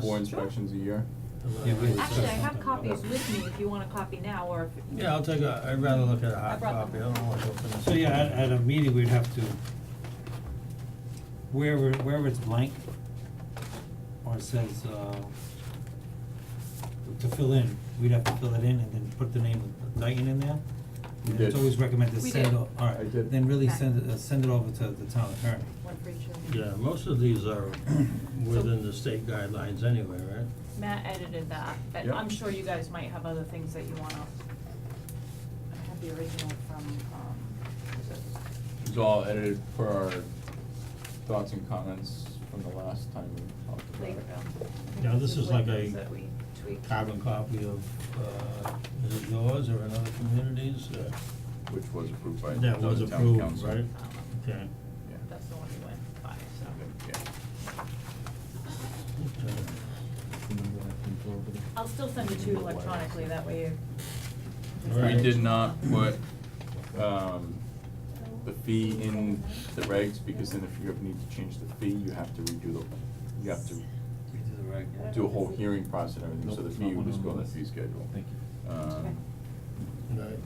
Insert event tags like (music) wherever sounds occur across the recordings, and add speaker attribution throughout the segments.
Speaker 1: Four inspections a year.
Speaker 2: Yeah, we-
Speaker 3: Actually, I have copies with me if you want a copy now or if.
Speaker 2: Yeah, I'll take a, I'd rather look at a hard
Speaker 3: brought
Speaker 2: copy,
Speaker 3: them.
Speaker 2: I don't wanna go for this. So yeah, at, at a meeting, we'd have to, wherever, wherever it's blank, or it says, uh, to fill in, we'd have to fill it in and then put the name of Dayton in there.
Speaker 1: We
Speaker 2: And It's
Speaker 1: did.
Speaker 2: always recommended
Speaker 3: We
Speaker 2: send,
Speaker 3: did.
Speaker 2: o-
Speaker 1: I
Speaker 2: alright,
Speaker 1: did.
Speaker 2: then really
Speaker 3: Okay.
Speaker 2: send it, uh, send it over to the town attorney.
Speaker 3: One for each of you.
Speaker 4: Yeah, most of these
Speaker 2: (clears throat)
Speaker 4: are within the state guidelines anyway, right?
Speaker 3: Matt edited that, but
Speaker 1: Yep.
Speaker 3: I'm sure you guys might have other things that you wanna. I have the original from, um, was it-
Speaker 1: It's all edited per our thoughts and comments from the last time we talked about it.
Speaker 3: Lakeville.
Speaker 4: Now, this is like a
Speaker 3: Lakeville's that we tweaked.
Speaker 4: Carbon copy of, uh, is it yours or another community's, uh,
Speaker 1: Which was approved by
Speaker 4: that was
Speaker 1: the town
Speaker 4: approved,
Speaker 1: council.
Speaker 4: right?
Speaker 3: Um,
Speaker 4: Okay,
Speaker 1: Yeah.
Speaker 3: That's the one we went by, so.
Speaker 4: okay.
Speaker 3: I'll still send it to you electronically, that way you.
Speaker 4: All
Speaker 1: Yeah.
Speaker 4: right.
Speaker 1: We did not put, um, the fee in the regs, because then if you ever need to change the fee, you have to redo the, you have to
Speaker 2: We do the reg.
Speaker 1: do a whole hearing process and everything, so the fee would just go on the fee schedule.
Speaker 5: Thank
Speaker 1: you. Um,
Speaker 4: Right.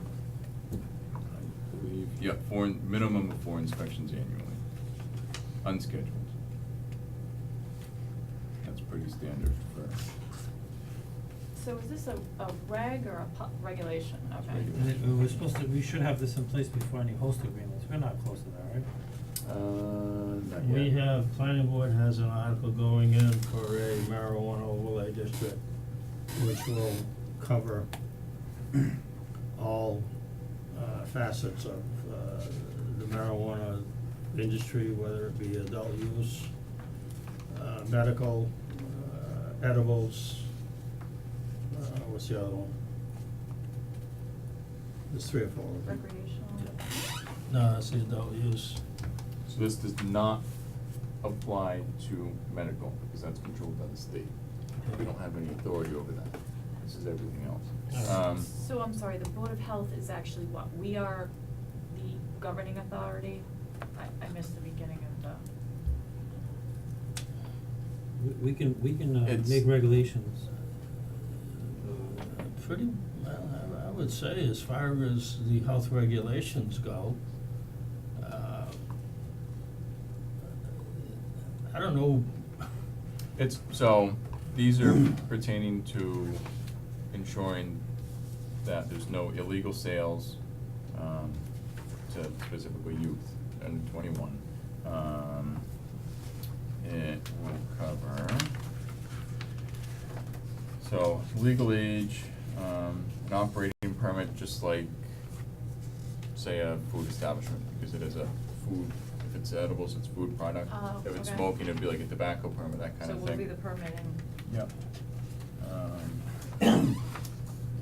Speaker 1: I believe, yeah, four, in- minimum of four inspections annually, unscheduled. That's pretty standard for,
Speaker 3: So is this a, a reg or a pu- regulation? Okay.
Speaker 1: Regulation.
Speaker 2: And it- we're supposed to, we should have this in place before any host agreements, we're not close to that, right?
Speaker 1: uh, not
Speaker 4: We
Speaker 1: yet.
Speaker 4: have, planning board has an article going in for a marijuana overlay district, which will cover all uh, facets of uh, the marijuana industry, whether it be adult use, uh, medical, uh, edibles, uh, what's the other one? There's three or four of them.
Speaker 3: Recreational.
Speaker 4: Yeah. No, that's the adult use.
Speaker 1: So this does not apply to medical, because that's controlled by the state. We don't have any authority over that. This is everything else. Um,
Speaker 3: So I'm sorry, the Board of Health is actually what, we are the governing authority? I, I missed the beginning of the,
Speaker 2: We- We can, we can uh,
Speaker 1: It's-
Speaker 2: make regulations.
Speaker 4: Uh, Pretty, well, I, I would say as far as the health regulations go, uh, I don't know,
Speaker 1: It's, so, these are pertaining to ensuring that there's no illegal sales, um, to specifically youth under twenty-one. Um, it will cover, so legal age, um, an operating permit, just like, say, a food establishment, because it is a food, if it's edibles, it's food product.
Speaker 3: Oh,
Speaker 1: If it's
Speaker 3: okay.
Speaker 1: smoking, it'd be like a tobacco permit, that kind
Speaker 3: so
Speaker 1: of thing.
Speaker 3: we'll be the permitting.
Speaker 1: Yep. Um,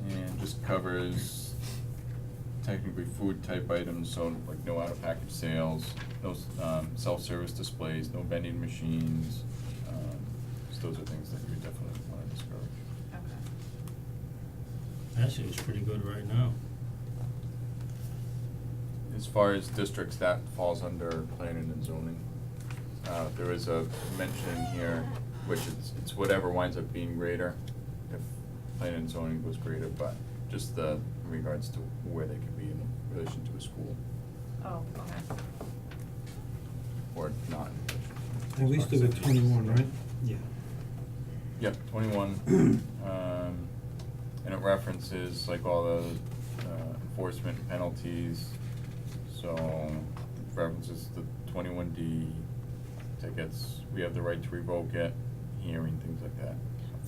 Speaker 1: And just covers technically food type items, so like no out of package sales, no s- um self-service displays, no vending machines. Um, so those are things that you definitely wanna discourage.
Speaker 3: Okay.
Speaker 4: actually it's pretty good right now.
Speaker 1: As far as districts, that falls under planning and zoning. Uh, there is a mention in here, which it's, it's whatever winds up being greater, if planning and zoning was greater, but just the, in regards to where they could be in relation to a school,
Speaker 3: Oh, okay.
Speaker 1: or not in relation.
Speaker 2: At least they were twenty-one, right? Yeah.
Speaker 1: Yep, twenty-one, um, and it references like all the uh, enforcement penalties, so it references the twenty-one D tickets, we have the right to revoke it, hearing, things like that.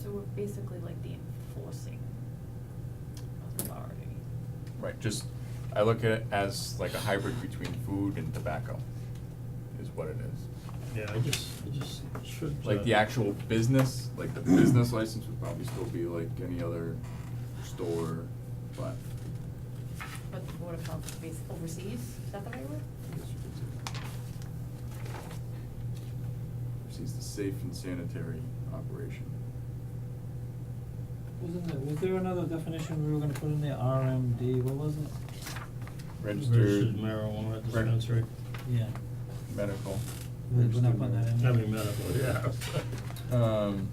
Speaker 3: So we're basically like the enforcing authority.
Speaker 1: Right, just, I look at it as like a hybrid between food and tobacco, is what it is.
Speaker 4: Yeah, I just, I just should.
Speaker 1: Like the
Speaker 4: uh,
Speaker 1: actual business, like the business license would probably still be like any other store, but
Speaker 3: But the Board of Health is based overseas, is that the right
Speaker 1: I
Speaker 3: word?
Speaker 1: guess you could say that. Oversees the safe and sanitary operation.
Speaker 2: Wasn't there, was there another definition we were gonna put in there, RMD, what was it?
Speaker 4: Registered marijuana
Speaker 1: Reg-
Speaker 4: dispensary.
Speaker 2: Yeah,
Speaker 1: Medical.
Speaker 2: We- we're
Speaker 1: Registered
Speaker 2: not putting that in
Speaker 1: medical. (laughs)
Speaker 2: there.
Speaker 4: (laughs) I mean medical, yeah.
Speaker 1: Um,